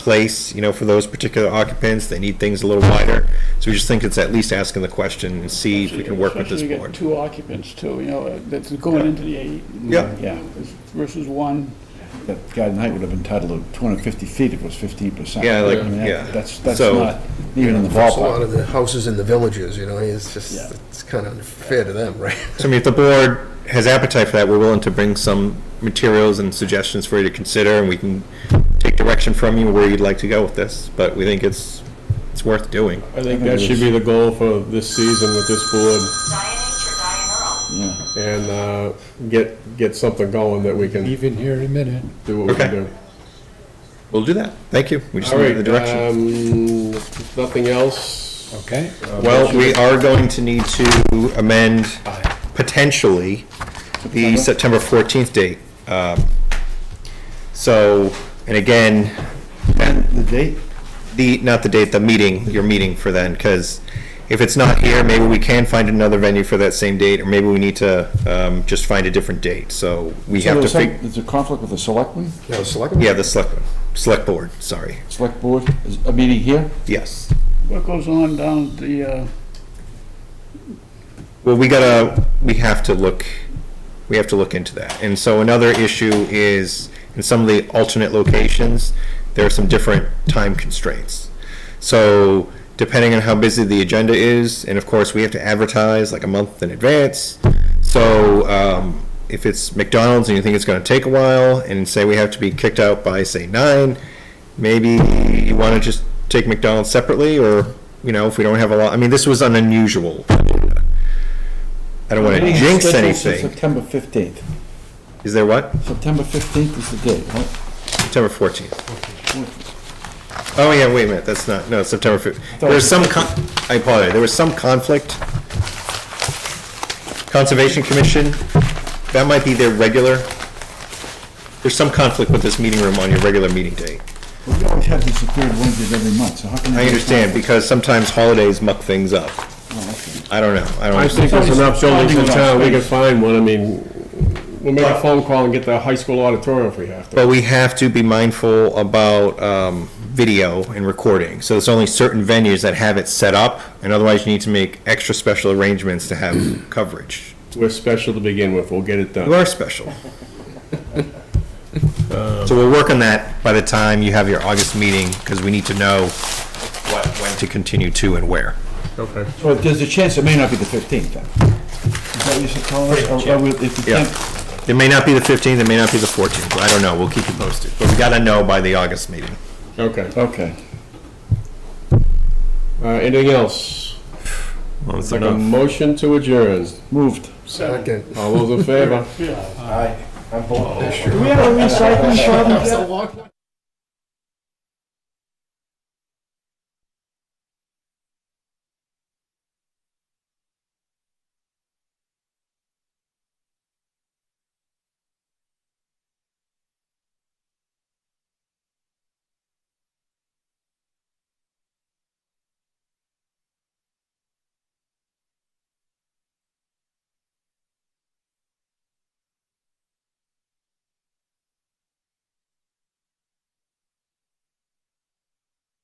place, you know, for those particular occupants. They need things a little wider. So we just think it's at least asking the question and see if we can work with this Especially you board. get two occupants too, you know, that's going into the AE. Yeah. Yeah, versus one. That garden height would have been titled to 250 feet if it was 15 percent. Yeah, like, yeah. That's, that's So- not even in the There's a lot ballpark. of the houses in the villages, you know, it's just, Yeah. it's kind of unfair to them, right? So I mean, if the board has appetite for that, we're willing to bring some materials and suggestions for you to consider, and we can take direction from you where you'd like to go with this. But we think it's, it's worth doing. I think that should be the goal for this season with this board, Diane H or Yeah. Diane Earl. and uh, get, get something going that we can Even here in a minute. do what we can Okay. do. We'll do that. Thank you. We just All need right, the direction. um, nothing else? Okay. Well, we are going to need to amend potentially the September 14th date. Um, So, and again, The date? the, not the date, the meeting, your meeting for then, because if it's not here, maybe we can find another venue for that same date, or maybe we need to um, just find a different date, so we So have to there's some- fig, there's a conflict with the selectmen, No, select. yeah, the select, select board, sorry, select board, is a meeting here? yes. What goes on down at the, uh, Well, we gotta, we have to look, we have to look into that. And so another issue is, in some of the alternate locations, there are some different time constraints. So depending on how busy the agenda is, and of course, we have to advertise like a month in advance. So, um, if it's McDonald's and you think it's gonna take a while, and say we have to be kicked out by, say, nine, maybe you wanna just take McDonald's separately, or, you know, if we don't have a lot, I mean, this was an unusual. I don't wanna Meeting is jinx scheduled for anything. September 15th. Is there what? September 15th is the date, right? September fourteenth. Oh, yeah, wait a minute, that's not, no, September fifth. There was some, con- I apologize, there was some conflict. Conservation Commission, that might be their regular. There's some conflict with this meeting room on your regular meeting date. Well, We always have these third Wednesdays every month, so how can? I they- understand, because sometimes holidays muck things up. I don't know, I don't I understand. think there's enough buildings in town, we can Somebody's- find one, I mean, we'll make a phone call and get the high school auditorium if we have to. But we have to be mindful about um, video and recording. So there's only certain venues that have it set up, and otherwise you need to make extra special arrangements to have coverage. We're special to begin with, we'll get it You done. are special. So we'll work on that by the time you have your August meeting, because we need to know what, when to continue to and where. Okay. So there's a chance it may not be the 15th then. Is that what you're telling us? Or- or we- If you Yeah. can't, It may not be the 15th, it may not be the 14th, I don't know, we'll keep you posted. But we gotta know by the August meeting. Okay, okay. Uh, anything else? Well, it's Like a enough. motion to adjourn, Moved. Second. all those in favor? yeah. Aye. I'm voting. Do we have a recycling shop?